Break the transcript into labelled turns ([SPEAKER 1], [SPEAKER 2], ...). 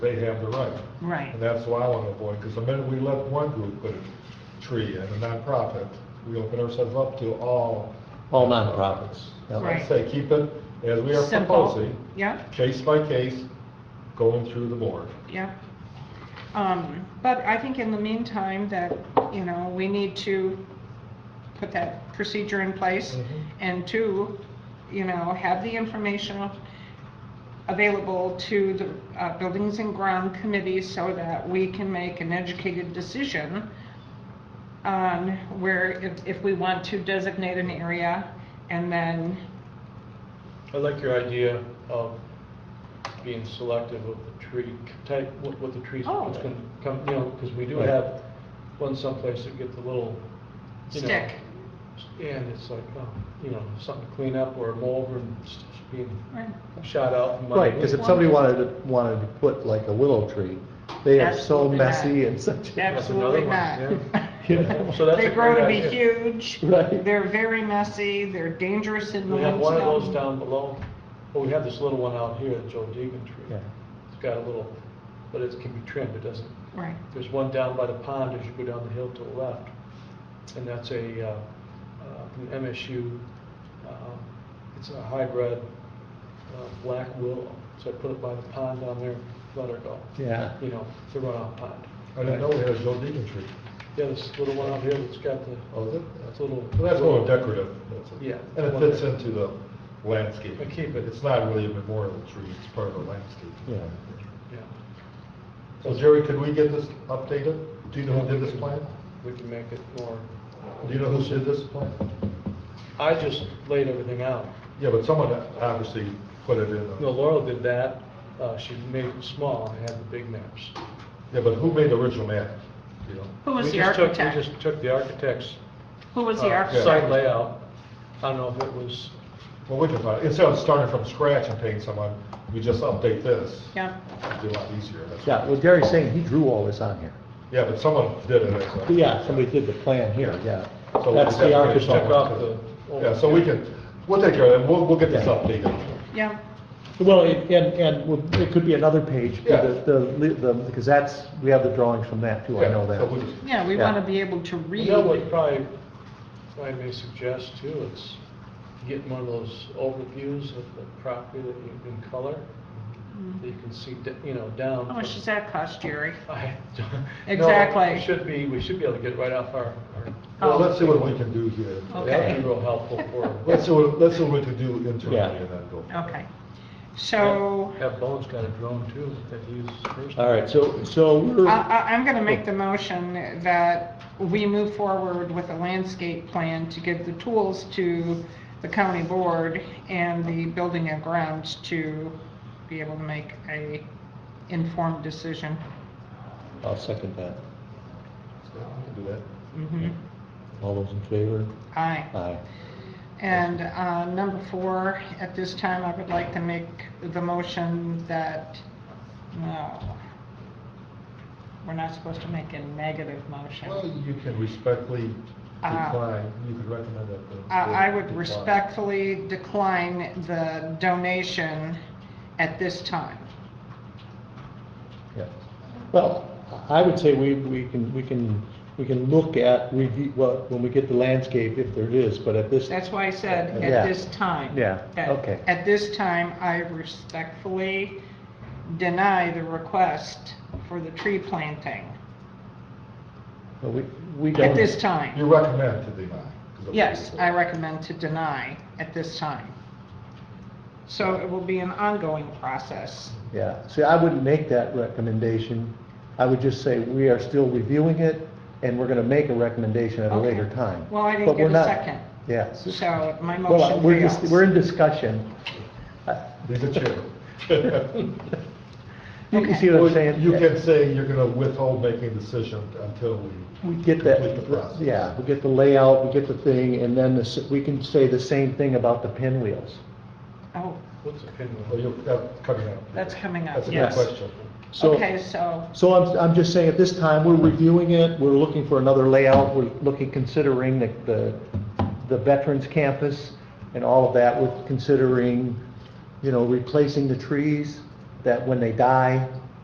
[SPEAKER 1] they have the right.
[SPEAKER 2] Right.
[SPEAKER 1] And that's what I want to avoid, because the minute we let one group put a tree in, a nonprofit, we open ourselves up to all.
[SPEAKER 3] All nonprofits. yeah.
[SPEAKER 2] Right.
[SPEAKER 1] I say, keep it as we are
[SPEAKER 2] Simple.
[SPEAKER 1] proposing,
[SPEAKER 2] Yep,
[SPEAKER 1] case by case, going through the board.
[SPEAKER 2] yep. Um, but I think in the meantime that, you know, we need to put that procedure in place.
[SPEAKER 1] Mhm.
[SPEAKER 2] And two, you know, have the information available to the uh, Buildings and Ground Committee so that we can make an educated decision on where, if, if we want to designate an area and then,
[SPEAKER 4] I like your idea of being selective of the tree type, what, what the trees,
[SPEAKER 2] Oh.
[SPEAKER 4] that's gonna come, you know, because we do have one someplace that get the little, you know.
[SPEAKER 2] Stick.
[SPEAKER 4] And it's like, oh, you know, something to clean up or mow over and it's just being
[SPEAKER 2] right,
[SPEAKER 4] shot out. from
[SPEAKER 3] Right,
[SPEAKER 4] underneath.
[SPEAKER 3] because if somebody wanted to, wanted to put like a willow tree, they are so
[SPEAKER 2] Absolutely not.
[SPEAKER 3] messy and such.
[SPEAKER 4] That's
[SPEAKER 2] absolutely
[SPEAKER 4] another
[SPEAKER 2] not.
[SPEAKER 4] one,
[SPEAKER 3] you know.
[SPEAKER 4] So that's
[SPEAKER 2] They
[SPEAKER 4] a
[SPEAKER 2] grow
[SPEAKER 4] great
[SPEAKER 2] to be
[SPEAKER 4] idea.
[SPEAKER 2] huge.
[SPEAKER 3] Right.
[SPEAKER 2] They're very messy. They're dangerous in the
[SPEAKER 4] We have one of those
[SPEAKER 2] windstorm.
[SPEAKER 4] down below, well, we have this little one out here, the Joe Deegan
[SPEAKER 3] Yeah.
[SPEAKER 4] tree. It's got a little, but it can be trimmed, it doesn't
[SPEAKER 2] Right.
[SPEAKER 4] There's one down by the pond as you go down the hill to the left, and that's a, uh, uh, an MSU, um, it's a hybrid uh, black willow. So I put it by the pond down there, let her go,
[SPEAKER 3] Yeah.
[SPEAKER 4] you know, the runoff pond.
[SPEAKER 1] I didn't know we had a Joe Deegan tree.
[SPEAKER 4] Yeah, this little one out here that's got the,
[SPEAKER 1] Oh, is it?
[SPEAKER 4] that's a little.
[SPEAKER 1] Well, that's a little decorative. that's it.
[SPEAKER 4] Yeah.
[SPEAKER 1] And it fits into the landscape.
[SPEAKER 4] I keep it.
[SPEAKER 1] It's not really a memorial tree, it's part of the landscape.
[SPEAKER 3] Yeah.
[SPEAKER 4] Yeah.
[SPEAKER 1] So Jerry, could we get this updated? Do you know who did this plan?
[SPEAKER 4] We can make it more,
[SPEAKER 1] Do you know who did this plan?
[SPEAKER 4] I just laid everything out.
[SPEAKER 1] Yeah, but someone obviously put it in. uh, a-
[SPEAKER 4] No, Laurel did that, uh, she made it small, I had the big maps.
[SPEAKER 1] Yeah, but who made the original map? You know?
[SPEAKER 2] Who was
[SPEAKER 4] We
[SPEAKER 2] the
[SPEAKER 4] just took- We
[SPEAKER 2] architect?
[SPEAKER 4] just took the architect's
[SPEAKER 2] Who was the
[SPEAKER 4] uh,
[SPEAKER 2] architect?
[SPEAKER 4] Site layout, I don't know if it was,
[SPEAKER 1] Well, we can find, instead of starting from scratch and paying someone, we just update this.
[SPEAKER 2] Yeah,
[SPEAKER 1] It'd be a lot easier. that's-
[SPEAKER 3] Yeah, well, Gary's saying he drew all this on here.
[SPEAKER 1] Yeah, but someone did it. as a-
[SPEAKER 3] Yeah, somebody did the plan here, yeah.
[SPEAKER 1] So
[SPEAKER 3] That's
[SPEAKER 1] we
[SPEAKER 3] the
[SPEAKER 1] definitely
[SPEAKER 4] architect.
[SPEAKER 3] architect.
[SPEAKER 4] Check off the-
[SPEAKER 1] Yeah, so we can, we'll take care of that, we'll, we'll get this
[SPEAKER 3] Yeah.
[SPEAKER 1] updated.
[SPEAKER 2] yeah,
[SPEAKER 3] Well, and, and- and would- it could be another page,
[SPEAKER 1] Yeah.
[SPEAKER 3] the, the- the, because that's, we have the drawings from that too, I know
[SPEAKER 1] Yeah, so we'll
[SPEAKER 3] that.
[SPEAKER 1] just-
[SPEAKER 2] yeah, we
[SPEAKER 3] Yeah.
[SPEAKER 2] want to be able to
[SPEAKER 4] you
[SPEAKER 2] read.
[SPEAKER 4] know what probably, I may suggest too, is getting one of those overviews of the property that you can color,
[SPEAKER 2] Mm-hmm.
[SPEAKER 4] that you can see, d- you know, down.
[SPEAKER 2] How much
[SPEAKER 4] from-
[SPEAKER 2] does that cost, Jerry?
[SPEAKER 4] I don't- no,
[SPEAKER 2] Oh, Exactly.
[SPEAKER 4] it Should be, we should be able to get it right off our,
[SPEAKER 1] Well,
[SPEAKER 2] Oh.
[SPEAKER 1] let's see what we can do here.
[SPEAKER 4] our,
[SPEAKER 2] Okay.
[SPEAKER 4] that'd be real helpful for,
[SPEAKER 1] Let's see what, let's see what we can do internally
[SPEAKER 3] Yeah.
[SPEAKER 1] and then go.
[SPEAKER 2] Okay. So
[SPEAKER 4] have Bones got a drone too, that he uses first.
[SPEAKER 3] All right, so, so
[SPEAKER 2] I,
[SPEAKER 3] we're,
[SPEAKER 2] I- I'm going to make the motion that we move forward with a landscape plan to give the tools to the county board and the building and grounds to be able to make a informed decision.
[SPEAKER 3] I'll second that.
[SPEAKER 2] Oh.
[SPEAKER 1] So we can Do that.
[SPEAKER 2] Mhm.
[SPEAKER 3] All those in favor?
[SPEAKER 2] Aye.
[SPEAKER 3] Aye.
[SPEAKER 2] And uh, number four, at this time, I would like to make the motion that, no, we're not supposed to make a negative
[SPEAKER 1] Well,
[SPEAKER 2] motion.
[SPEAKER 1] you can respectfully
[SPEAKER 2] Uh,
[SPEAKER 1] decline, you could recommend that. the
[SPEAKER 2] I I
[SPEAKER 1] board
[SPEAKER 2] would
[SPEAKER 1] decline.
[SPEAKER 2] respectfully decline the donation at this time.
[SPEAKER 3] Yeah. Well, I would say we, we can, we can, we can look at, review, well, when we get the landscape, if there is, but at this,
[SPEAKER 2] That's why I said
[SPEAKER 3] Uh, Yeah.
[SPEAKER 2] at this time.
[SPEAKER 3] Yeah,
[SPEAKER 2] That-
[SPEAKER 3] okay.
[SPEAKER 2] At this time, I respectfully deny the request for the tree planting
[SPEAKER 3] we, we don't.
[SPEAKER 2] at this time.
[SPEAKER 1] You recommend to deny. 'cause of-
[SPEAKER 2] Yes, I recommend to deny at this time. So it will be an ongoing process.
[SPEAKER 3] Yeah, see, I wouldn't make that recommendation. I would just say we are still reviewing it, and we're gonna make a recommendation at a
[SPEAKER 2] Okay.
[SPEAKER 3] later time.
[SPEAKER 2] Well, I didn't
[SPEAKER 3] But
[SPEAKER 2] get
[SPEAKER 3] we're
[SPEAKER 2] a
[SPEAKER 3] not-
[SPEAKER 2] second.
[SPEAKER 3] Yes.
[SPEAKER 2] So my
[SPEAKER 3] Well,
[SPEAKER 2] motion
[SPEAKER 3] we're just,
[SPEAKER 2] fails.
[SPEAKER 3] we're in discussion.
[SPEAKER 1] Be the chair.
[SPEAKER 3] You can see what
[SPEAKER 1] Well,
[SPEAKER 3] I'm saying?
[SPEAKER 1] You can say you're gonna withhold making a decision until we.
[SPEAKER 3] We get that,
[SPEAKER 1] complete the process.
[SPEAKER 3] yeah, we get the layout, we get the thing, and then the s- we can say the same thing about the pinwheels.
[SPEAKER 2] Oh,
[SPEAKER 4] What's the
[SPEAKER 1] Well,
[SPEAKER 4] pinwheel?
[SPEAKER 1] you're, that's coming up.
[SPEAKER 2] That's coming up,
[SPEAKER 1] That's a good
[SPEAKER 2] yes.
[SPEAKER 1] question.
[SPEAKER 3] So-
[SPEAKER 2] okay, so,
[SPEAKER 3] So I'm, I'm just saying, at this time, we're reviewing it, we're looking for another layout, we're looking, considering the- the, the veterans campus and all of that, we're considering, you know, replacing the trees, that when they die,